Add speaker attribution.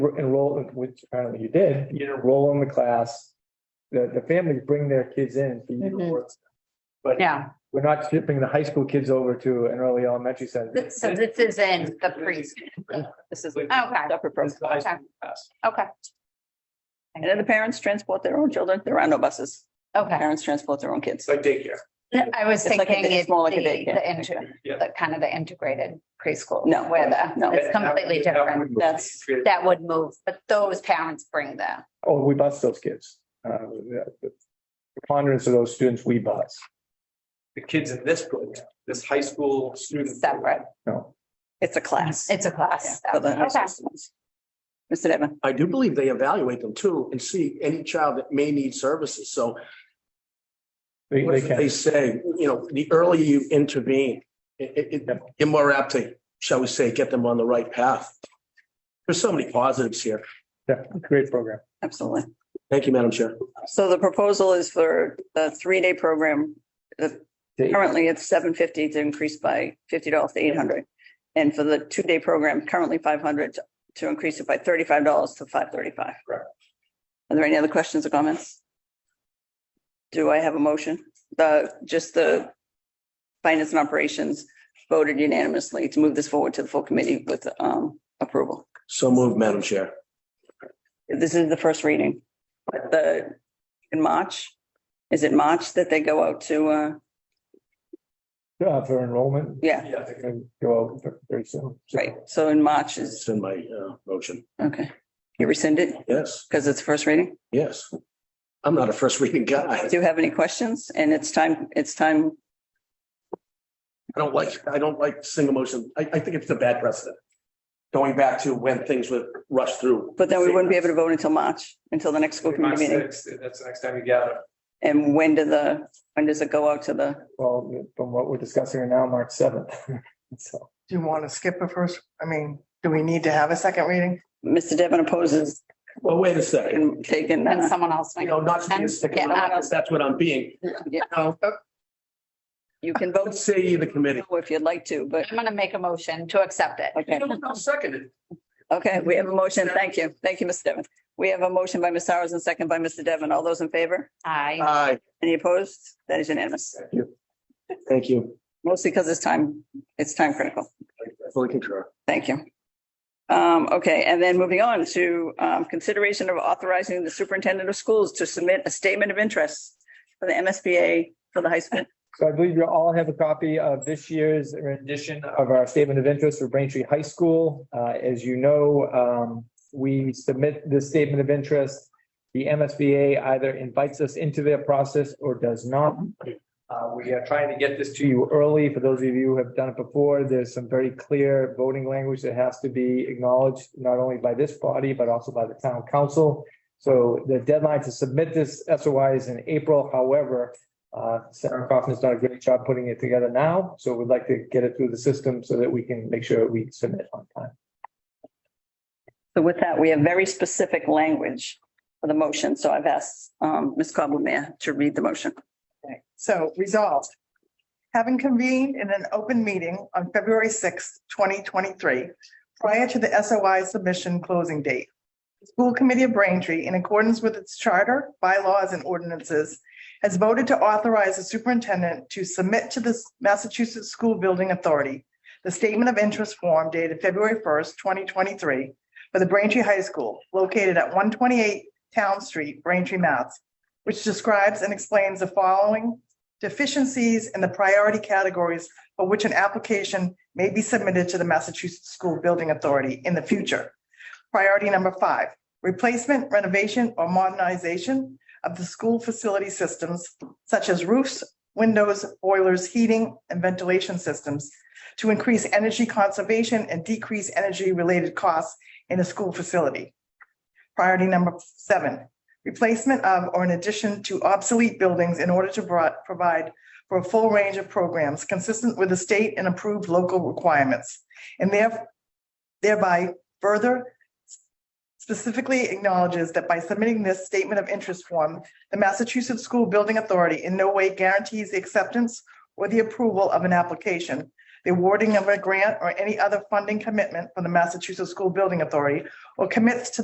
Speaker 1: enroll, which apparently you did, you enroll in the class. The, the families bring their kids in for you to
Speaker 2: Mhm.
Speaker 1: work. But
Speaker 2: Yeah,
Speaker 1: we're not shipping the high school kids over to an early elementary setting.
Speaker 2: Th- so this is in the preschool.
Speaker 3: This is a
Speaker 2: Okay,
Speaker 3: separate
Speaker 1: This
Speaker 3: program.
Speaker 1: is the high
Speaker 2: okay.
Speaker 1: school class.
Speaker 2: okay,
Speaker 3: And then the parents transport their own children. There are no buses.
Speaker 2: okay.
Speaker 3: Parents transport their own
Speaker 1: It's
Speaker 3: kids.
Speaker 1: like daycare.
Speaker 2: I was
Speaker 3: It's like a-
Speaker 2: thinking
Speaker 3: it's
Speaker 2: it's
Speaker 3: more
Speaker 2: the,
Speaker 3: like a daycare.
Speaker 2: the inter,
Speaker 1: Yeah.
Speaker 2: the kind of the integrated preschool.
Speaker 3: No,
Speaker 2: Where the,
Speaker 3: no.
Speaker 2: it's completely
Speaker 1: That would- that
Speaker 2: different.
Speaker 1: would-
Speaker 3: That's-
Speaker 2: That would move, but those parents bring the,
Speaker 1: Oh, we bus those kids. Uh, the the preponderance of those students, we bus.
Speaker 4: the kids in this program, this high school student.
Speaker 2: separate,
Speaker 1: No,
Speaker 3: It's a class.
Speaker 2: it's a
Speaker 3: Yeah,
Speaker 2: class.
Speaker 3: for the high
Speaker 2: Okay.
Speaker 3: school students. Mr. Devon,
Speaker 5: I do believe they evaluate them too and see any child that may need services. So
Speaker 1: they,
Speaker 5: what
Speaker 1: they
Speaker 5: if
Speaker 1: can.
Speaker 5: they say, you know, the earlier you intervene, it, it- it- you're more apt to, shall we say, get them on the right path. There's so many positives here.
Speaker 1: Yeah, great program.
Speaker 3: absolutely.
Speaker 5: Thank you, Madam Chair.
Speaker 3: So the proposal is for the three-day program. The- Currently, it's seven fifty to increase by fifty dollars to eight hundred. And for the two-day program, currently five hundred, to increase it by thirty-five dollars to five thirty-five.
Speaker 1: Correct.
Speaker 3: Are there any other questions or comments? Do I have a motion? The, just the finance and operations voted unanimously to move this forward to the full committee with um approval.
Speaker 5: So moved, Madam Chair.
Speaker 3: This is the first reading, but the, in March, is it March that they go out to, uh,
Speaker 1: Uh, for enrollment.
Speaker 3: yeah,
Speaker 4: Yeah,
Speaker 1: They're gonna Go out very soon.
Speaker 3: right, so in March is,
Speaker 5: It's in my uh, motion.
Speaker 3: okay. You rescind it
Speaker 5: Yes,
Speaker 3: because it's first reading?
Speaker 5: yes. I'm not a first reading guy.
Speaker 3: Do you have any questions? And it's time, it's time,
Speaker 5: I don't like, I don't like single motion. I, I think it's a bad precedent. Going back to when things were rushed through.
Speaker 3: but then we wouldn't be able to vote until March, until the next school
Speaker 4: March
Speaker 3: committee meeting.
Speaker 4: 6th, That's the next time you gather.
Speaker 3: And when do the, when does it go out to the,
Speaker 1: Well, from what we're discussing right now, March seventh. So
Speaker 6: Do you want to skip a first, I mean, do we need to have a second reading?
Speaker 3: Mr. Devon opposes
Speaker 5: Well, wait a second.
Speaker 3: and taking,
Speaker 2: And
Speaker 3: uh,
Speaker 2: someone else.
Speaker 5: You know, not to be a stick in the
Speaker 2: Yeah.
Speaker 5: mud, that's what I'm being.
Speaker 3: you can vote
Speaker 5: Let's say the committee.
Speaker 3: if you'd like to, but,
Speaker 2: I'm gonna make a motion to accept it.
Speaker 3: okay.
Speaker 5: Seconded.
Speaker 3: Okay, we have a motion. Thank you. Thank you, Mr. Devon. We have a motion by Ms. Sowers and second by Mr. Devon. All those in favor?
Speaker 2: I,
Speaker 5: Aye,
Speaker 3: Any opposed? That is unanimous,
Speaker 5: thank you.
Speaker 3: mostly because it's time, it's time critical.
Speaker 5: I Fully concur.
Speaker 3: Thank you. Um, okay, and then moving on to, um, consideration of authorizing the superintendent of schools to submit a statement of interest for the MSBA for the high school.
Speaker 1: so I believe you all have a copy of this year's rendition of our statement of interest for Braintree High School. Uh, as you know, um, we submit this statement of interest. The MSBA either invites us into their process or does not. Uh, we are trying to get this to you early. For those of you who have done it before, there's some very clear voting language that has to be acknowledged, not only by this body, but also by the town council. So the deadline to submit this SOI is in April. However, uh, Sarah Kaufman's done a great job putting it together now, so we'd like to get it through the system so that we can make sure we submit on time.
Speaker 3: So with that, we have very specific language for the motion. So I've asked, um, Ms. Cobblemare to read the motion.
Speaker 6: Okay, So resolved. Having convened in an open meeting on February sixth, twenty twenty-three, prior to the SOI submission closing date, the School Committee of Braintree, in accordance with its charter, bylaws, and ordinances, has voted to authorize the superintendent to submit to the Massachusetts School Building Authority the statement of interest form dated February first, twenty twenty-three for the Braintree High School located at one twenty-eight Town Street, Braintree, Mass, which describes and explains the following deficiencies in the priority categories for which an application may be submitted to the Massachusetts School Building Authority in the future. Priority number five, replacement, renovation, or modernization of the school facility systems such as roofs, windows, boilers, heating, and ventilation systems to increase energy conservation and decrease energy-related costs in a school facility. Priority number seven, replacement of or in addition to obsolete buildings in order to bro- provide for a full range of programs consistent with the state and approved local requirements. And there- thereby further specifically acknowledges that by submitting this statement of interest form, the Massachusetts School Building Authority in no way guarantees the acceptance or the approval of an application, the awarding of a grant or any other funding commitment from the Massachusetts School Building Authority or commits to